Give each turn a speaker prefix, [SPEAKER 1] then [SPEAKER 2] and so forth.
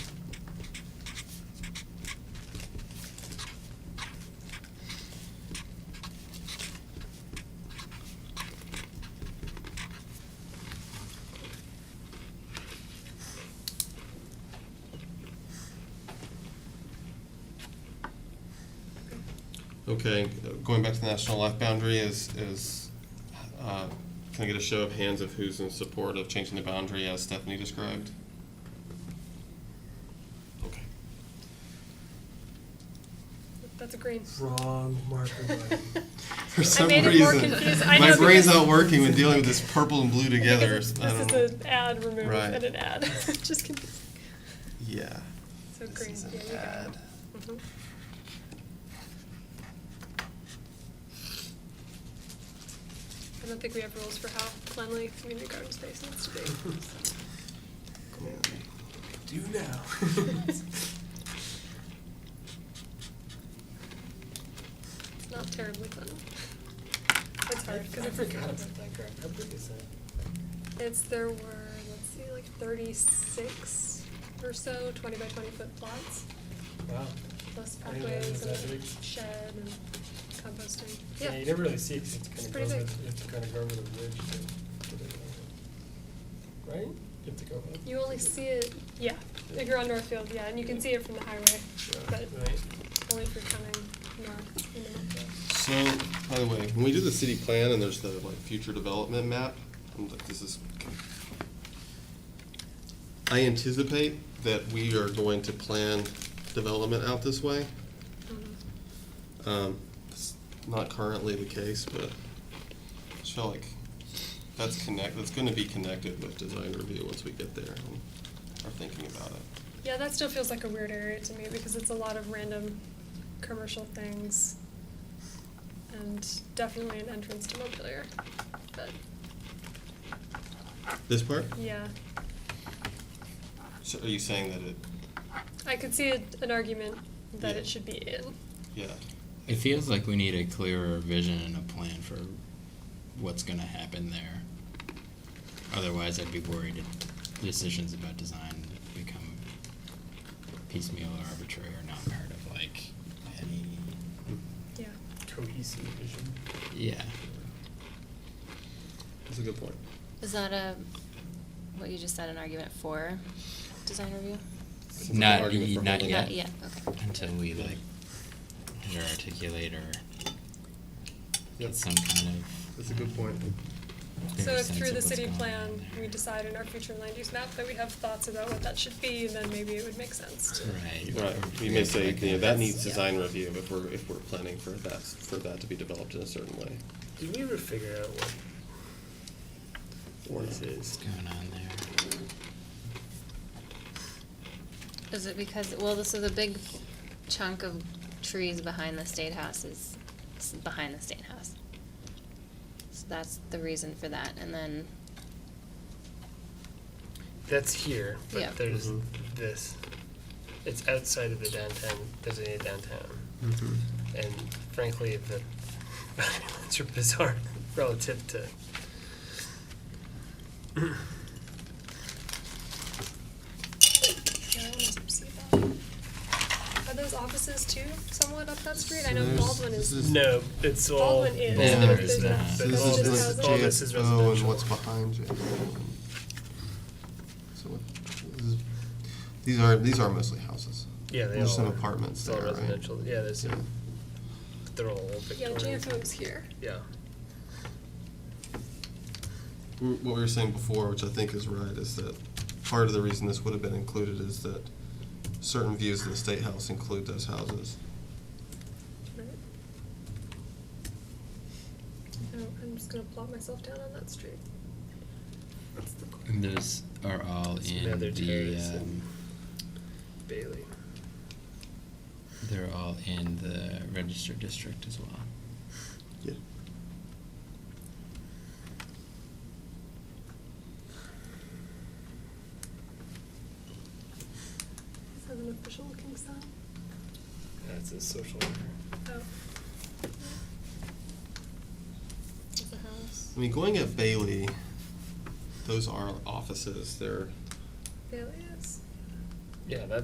[SPEAKER 1] Okay, going back to the national life boundary is, is, uh, can I get a show of hands of who's in support of changing the boundary as Stephanie described? Okay.
[SPEAKER 2] That's a green.
[SPEAKER 3] Wrong marker. button.
[SPEAKER 1] For some
[SPEAKER 2] made it more
[SPEAKER 1] reason,
[SPEAKER 2] confused. I
[SPEAKER 1] my
[SPEAKER 2] know
[SPEAKER 1] brain's
[SPEAKER 2] because-
[SPEAKER 1] not working with dealing with this purple and blue together.
[SPEAKER 2] Because
[SPEAKER 1] I
[SPEAKER 2] This
[SPEAKER 1] don't know.
[SPEAKER 2] is an ad remove
[SPEAKER 1] Right.
[SPEAKER 2] and an ad. Just confusing.
[SPEAKER 1] Yeah.
[SPEAKER 2] So
[SPEAKER 1] This
[SPEAKER 2] green.
[SPEAKER 1] is an
[SPEAKER 2] yeah, you got it.
[SPEAKER 1] ad.
[SPEAKER 2] Mhm. I don't think we have rules for how cleanly community garden space needs to be.
[SPEAKER 3] Do now.
[SPEAKER 2] It's not terribly clean. It's hard because it's
[SPEAKER 3] I
[SPEAKER 2] a
[SPEAKER 3] forgot
[SPEAKER 2] different
[SPEAKER 3] about
[SPEAKER 2] that
[SPEAKER 3] How big is that?
[SPEAKER 2] It's, there were, let's see, like thirty-six or so twenty by twenty foot plots.
[SPEAKER 3] Wow.
[SPEAKER 2] Plus
[SPEAKER 3] I didn't realize
[SPEAKER 2] pathways and
[SPEAKER 3] it was that
[SPEAKER 2] a
[SPEAKER 3] big.
[SPEAKER 2] shed and composting.
[SPEAKER 3] Yeah, you never really see it 'cause
[SPEAKER 2] It's
[SPEAKER 3] it's kind
[SPEAKER 2] pretty
[SPEAKER 3] of goes
[SPEAKER 2] big.
[SPEAKER 3] over, it's kind of go over the ridge to to the, right? You have to go up.
[SPEAKER 2] You only see it, yeah, if you're on Northfield, yeah, and you can see it from the highway, but
[SPEAKER 3] Right.
[SPEAKER 2] only if you're coming north, you know.
[SPEAKER 1] So, by the way, when we do the city plan and there's the like future development map, I'm like, this is. I anticipate that we are going to plan development out this way. Um, it's not currently the case, but I feel like that's connect, that's gonna be connected with design review once we get there and are thinking about it.
[SPEAKER 2] Yeah, that still feels like a weird area to me because it's a lot of random commercial things and definitely an entrance to Montpelier, but,
[SPEAKER 1] This part?
[SPEAKER 2] yeah.
[SPEAKER 1] So are you saying that it,
[SPEAKER 2] I could see a- an argument that
[SPEAKER 1] Yeah.
[SPEAKER 2] it should be in,
[SPEAKER 1] yeah,
[SPEAKER 4] It feels like we need a clearer vision and a plan for what's going to happen there. Otherwise, I'd be worried that decisions about design become piecemeal or arbitrary or not part of like any.
[SPEAKER 2] yeah.
[SPEAKER 3] Cohesive vision.
[SPEAKER 4] Yeah.
[SPEAKER 1] that's a good point.
[SPEAKER 5] Is that a, what you just said, an argument for design review?
[SPEAKER 1] It's an
[SPEAKER 4] Not,
[SPEAKER 1] argument
[SPEAKER 4] ye-
[SPEAKER 1] for
[SPEAKER 4] not
[SPEAKER 1] holding
[SPEAKER 4] yet.
[SPEAKER 5] Not yet, okay.
[SPEAKER 4] Until we like either articulate or
[SPEAKER 1] Yep.
[SPEAKER 4] get some kind of.
[SPEAKER 1] That's a good point.
[SPEAKER 2] So
[SPEAKER 4] clearer
[SPEAKER 2] if
[SPEAKER 4] sense
[SPEAKER 2] through the
[SPEAKER 4] of what's
[SPEAKER 2] city
[SPEAKER 4] going on
[SPEAKER 2] plan,
[SPEAKER 4] there.
[SPEAKER 2] we decide in our future land use map that we have thoughts about what that should be, then maybe it would make sense to.
[SPEAKER 4] Right.
[SPEAKER 1] Right, we may say, you know, that needs design review if we're, if we're planning for that, for that to be developed in a certain way.
[SPEAKER 3] Did we ever figure out what
[SPEAKER 1] Or
[SPEAKER 3] what this
[SPEAKER 1] not.
[SPEAKER 3] is?
[SPEAKER 4] What's going on there?
[SPEAKER 5] Is it because, well, this is a big chunk of trees behind the state house is, is behind the state house. So that's the reason for that, and then,
[SPEAKER 3] That's here, but
[SPEAKER 5] Yeah.
[SPEAKER 3] there's
[SPEAKER 1] Mhm.
[SPEAKER 3] this. It's outside of the downtown designated downtown,
[SPEAKER 1] Mm-hmm.
[SPEAKER 3] and frankly, the boundary lines are bizarre relative to.
[SPEAKER 2] Yeah, I wanna see that. Are those offices too somewhat up that street? I know
[SPEAKER 1] There's-
[SPEAKER 2] Baldwin
[SPEAKER 1] this
[SPEAKER 2] is,
[SPEAKER 1] is-
[SPEAKER 3] No, it's all.
[SPEAKER 2] Baldwin is.
[SPEAKER 4] Yeah,
[SPEAKER 3] all
[SPEAKER 4] there
[SPEAKER 3] this
[SPEAKER 4] is
[SPEAKER 3] is-
[SPEAKER 4] that.
[SPEAKER 3] but
[SPEAKER 2] This
[SPEAKER 3] all
[SPEAKER 2] is
[SPEAKER 3] this-
[SPEAKER 2] just
[SPEAKER 3] all this is
[SPEAKER 1] JSO and
[SPEAKER 3] residential.
[SPEAKER 1] what's behind JSO. So what, this is- these are, these are mostly houses.
[SPEAKER 3] Yeah, they all.
[SPEAKER 1] There's some
[SPEAKER 3] are.
[SPEAKER 1] apartments
[SPEAKER 3] It's all
[SPEAKER 1] there, right?
[SPEAKER 3] residential. Yeah, there's.
[SPEAKER 1] Yeah.
[SPEAKER 3] They're all old
[SPEAKER 2] yeah,
[SPEAKER 3] Victorian.
[SPEAKER 2] GFO is here.
[SPEAKER 3] Yeah.
[SPEAKER 1] w- Mm, what we were saying before, which I think is right, is that part of the reason this would have been included is that certain views of the state house include those houses.
[SPEAKER 2] Right. Oh, I'm just gonna plop myself down on that street. That's the corner.
[SPEAKER 4] And those are all
[SPEAKER 3] It's
[SPEAKER 4] in
[SPEAKER 3] another
[SPEAKER 4] the,
[SPEAKER 3] terrace and-
[SPEAKER 4] um,
[SPEAKER 3] Bailey.
[SPEAKER 4] they're all in the registered district as well.
[SPEAKER 1] Yeah.
[SPEAKER 2] Is that an official looking sign?
[SPEAKER 3] That's a social worker.
[SPEAKER 2] Oh. It's a house.
[SPEAKER 1] I mean, going at Bailey, those are offices, they're
[SPEAKER 2] There it is.
[SPEAKER 3] Yeah, that